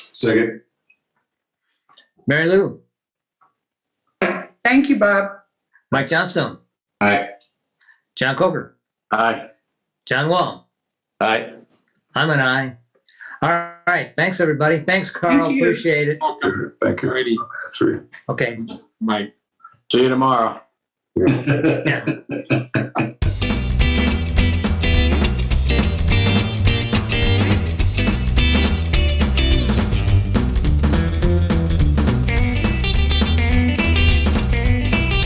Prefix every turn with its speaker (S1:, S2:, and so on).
S1: Second.
S2: Mary Lou,
S3: Thank you, Bob.
S2: Mike Johnstone,
S1: Aye.
S2: John Coker,
S4: Aye.
S2: John Wall.
S4: Aye.
S2: I'm an aye. All right, thanks, everybody. Thanks, Carl,
S3: Thank you.
S2: appreciate it.
S4: Welcome,
S1: Thank you.
S4: Brady.
S1: Three.
S2: Okay,
S4: Mike. See you tomorrow.
S2: yeah.